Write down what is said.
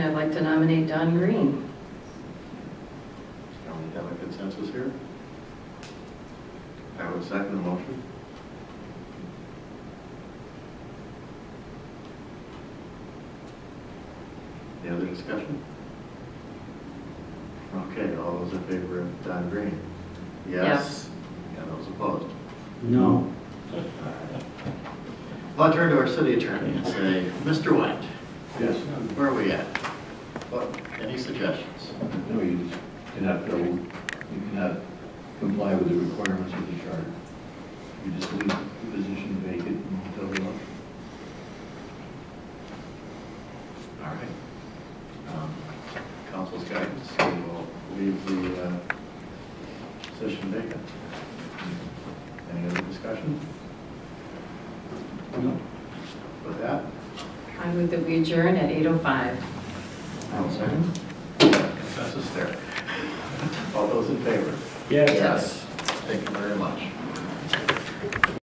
I'd like to nominate Don Green. Are we having consensus here? I would second the motion. Any other discussion? Okay, all those in favor of Don Green? Yes. And those opposed? No. I'll turn to our city attorney and say, Mr. White, Yes, where are we at? What- Any suggestions? no, you just cannot go, you cannot comply with the requirements of the charter. You just leave the position vacant until the election. All right. Um, Council's guidance, we will leave the uh, session vacant. Any other discussion? With that, I move that we adjourn at 8:05. I'll second. Consensus there. All those in favor? Yes. Thank you very much.